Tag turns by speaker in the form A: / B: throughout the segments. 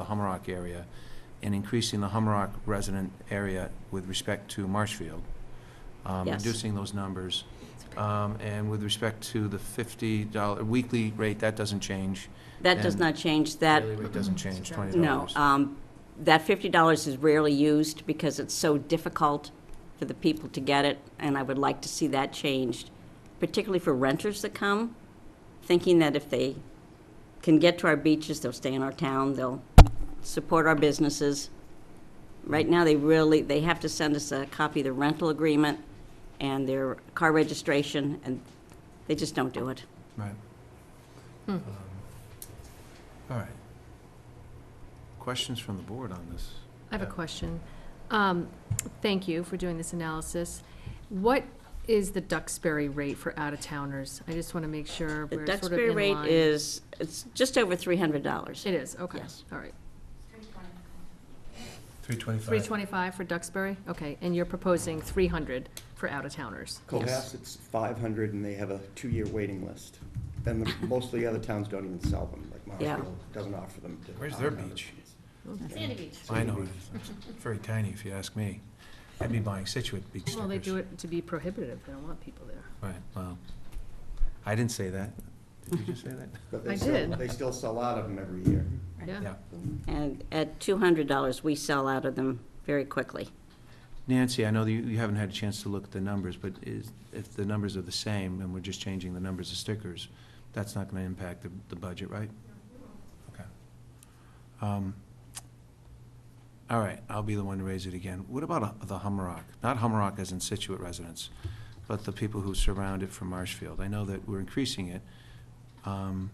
A: Hummerock area and increasing the Hummerock resident area with respect to Marshfield. um,
B: Yes.
A: Reducing those numbers. Um, And with respect to the fifty dollar weekly rate, that doesn't change.
B: That does
A: And
B: not change, that,
A: Daily rate
C: Mm-hmm.
A: doesn't change, twenty
B: no.
A: dollars.
B: um, That $50 is rarely used because it's so difficult for the people to get it, and I would like to see that changed, particularly for renters that come, thinking that if they can get to our beaches, they'll stay in our town, they'll support our businesses. Right now, they really, they have to send us a copy of the rental agreement and their car registration, and they just don't do it.
A: Right.
C: Hmm.
A: Um, All right. Questions from the board on this?
C: I have a
A: Yeah.
C: question. Um, Thank you for doing this analysis. What is the Duxbury rate for out-of-towners? I just want to make sure
B: The
C: we're sort of
B: Duxbury
C: in
B: rate
C: line.
B: is, it's just over three hundred dollars.
C: It is, okay,
B: Yes.
C: all right.
A: Three
C: Three twenty-five for Duxbury, okay, and you're proposing three hundred for out-of-towners?
A: Yes.
D: Cohasset, it's five hundred, and they have a two-year waiting list. And the- most of the other towns don't even sell them, like
B: Yeah.
D: Marshfield doesn't offer them. to
A: Where's their
D: non-members.
A: beach?
C: Sandy
B: Beach.
A: I know, it is. it's very tiny if you ask me. I'd be buying Situate beach stickers.
C: Well, they do it to be prohibitive, they don't want people there.
A: Right, well, I didn't say that. Did you just say that?
D: But they
C: I
D: still-
C: did.
D: They still sell out of them every year.
C: Yeah,
A: Yeah.
B: And at two hundred dollars, we sell out of them very quickly.
A: Nancy, I know that you, you haven't had a chance to look at the numbers, but is, if the numbers are the same and we're just changing the numbers of stickers, that's not gonna impact the, the budget, right? Okay. Um, All right, I'll be the one to raise it again. What about uh, the Hummerock? Not Hummerock as in Situate residents, but the people who surround it from Marshfield. I know that we're increasing it. Um,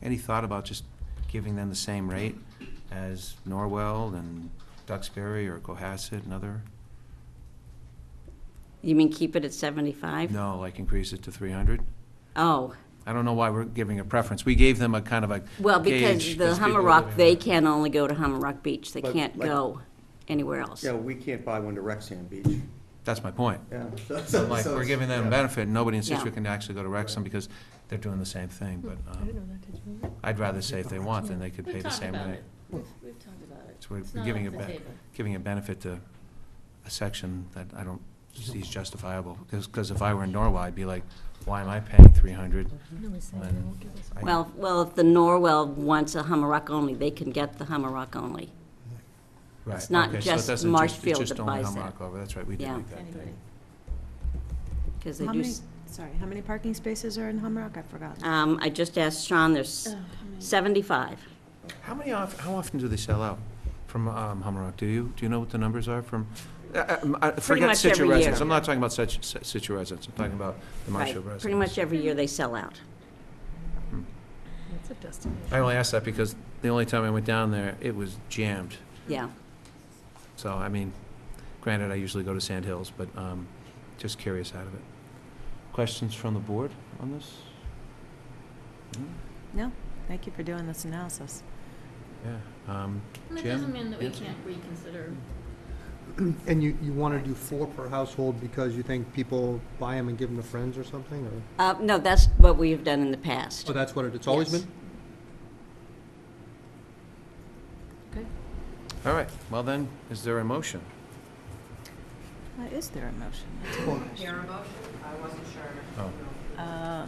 A: Any thought about just giving them the same rate as Norwell and Duxbury or Cohasset and other?
B: You mean keep it at seventy-five?
A: No, like increase it to three hundred?
B: Oh,
A: I don't know why we're giving a preference. We gave them a kind of a
B: well, because
A: gauge
B: the
A: as people
B: Hummer Rock,
A: living
B: they
A: there.
B: can only go to Hummer Rock Beach. They
D: But,
B: can't
D: like-
B: go anywhere else.
D: Yeah, we can't buy one to Rexham Beach.
A: That's my point.
D: Yeah.
A: I'm Like, we're giving them a benefit, and nobody in
B: Yeah.
A: Situate can actually go to Wrexham because they're doing the same thing, but
C: Hmm. I
A: um,
C: didn't know that, did you?
A: I'd rather say if they want, then they could pay
E: We've
A: the
E: talked
A: same
E: about
A: rate.
E: it. We've, we've talked about it.
A: So we're
E: It's not
A: giving
E: off
A: it
E: the
A: back.
E: table.
A: Giving a benefit to a section that I don't see is justifiable. Because if I were in Norway, I'd be like, why am I paying three hundred?
C: No, we said they
A: When-
C: won't give us one.
B: Well, well, if the Norwell wants a Hummer Rock only, they can get the Hummer Rock only. it's not just Marshfield that buys
A: It's
B: it.
A: just only Humrock over, that's right, we did
B: Yeah.
A: make that
E: Anyway.
A: thing.
B: Because they
F: How
B: do,
F: many,
B: s-
F: sorry, how many parking spaces are in Humrock? I've forgotten.
B: um, I just asked Sean, there's
E: Ugh, Oh,
C: Uh.
E: how many-
B: seventy-five.
A: How many, of- how often do they sell out from um, Hummerock? Do you, do you know what the numbers are from? uh, uh, m- I Forget
B: much
A: Situate
B: every
A: residents,
B: year.
A: I'm not talking about such, si- Situate residents, I'm talking about the
B: Right.
A: Marshfield residents.
B: Pretty much every year they sell out.
C: It's a destination.
A: I uh, only asked that because the only time I went down there, it was jammed.
B: Yeah.
A: So, I mean, granted, I usually go to Sand Hills, but um, just curious out of it. Questions from the board on this? Hmm? No?
F: No, thank you for doing this analysis.
A: Yeah. um,
E: And That
A: Jim?
E: doesn't mean that we
A: Yes.
E: can't reconsider.
G: And you, you want to do four per household because you think people buy them and give them to friends or something, or?
B: Uh, no, that's what we have done in the past.
G: Oh, that's what it, it's always
B: Yes.
G: been?
C: Okay.
A: All right, well then, is there a motion?
F: Uh, Is there a motion?
A: Oh,
F: Uh,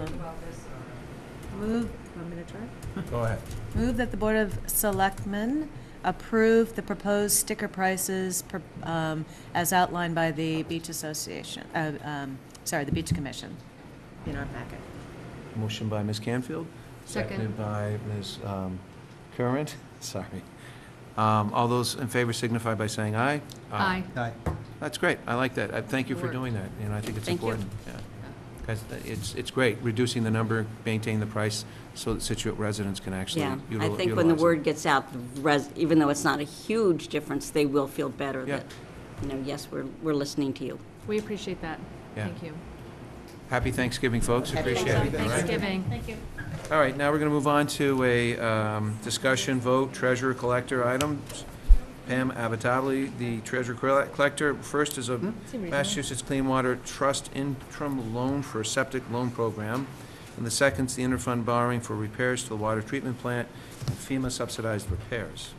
F: Move, want me to try?
A: go ahead.
F: Move that the Board of Selectmen approve the proposed sticker prices per- um, as outlined by the Beach Association, uh, um, sorry, the Beach Commission in our packet.
A: Motion by Ms. Canfield?
C: Second.
A: Seconded by Ms. um, Current, sorry. Um, All those in favor signify by saying aye. Uh,
C: Aye.
G: Aye.
A: That's great, I like that, I thank you for
C: Work.
A: doing that, you know, I think it's
B: Thank you.
A: important. Yeah, Guys, th- it's, it's great, reducing the number, maintain the price, so that Situate residents can actually
B: Yeah,
A: util-
B: I
A: utilize it.
B: think when the word gets out, the res- even though it's not a huge difference, they will feel better
A: Yeah.
B: that, you know, yes, we're, we're listening to you.
C: We appreciate that,
A: Yeah.
C: thank you.
A: Happy Thanksgiving, folks, appreciate it. all right?
C: Thanksgiving.
E: Thank you.
A: All right, now we're going to move on to a um, discussion, vote, treasurer, collector items. Pam Abitabli, the treasurer colle- collector. First is a
C: reasonable.
A: Massachusetts Clean Water Trust interim loan for a septic loan program. And the second's the interfund borrowing for repairs to the water treatment plant and FEMA subsidized repairs.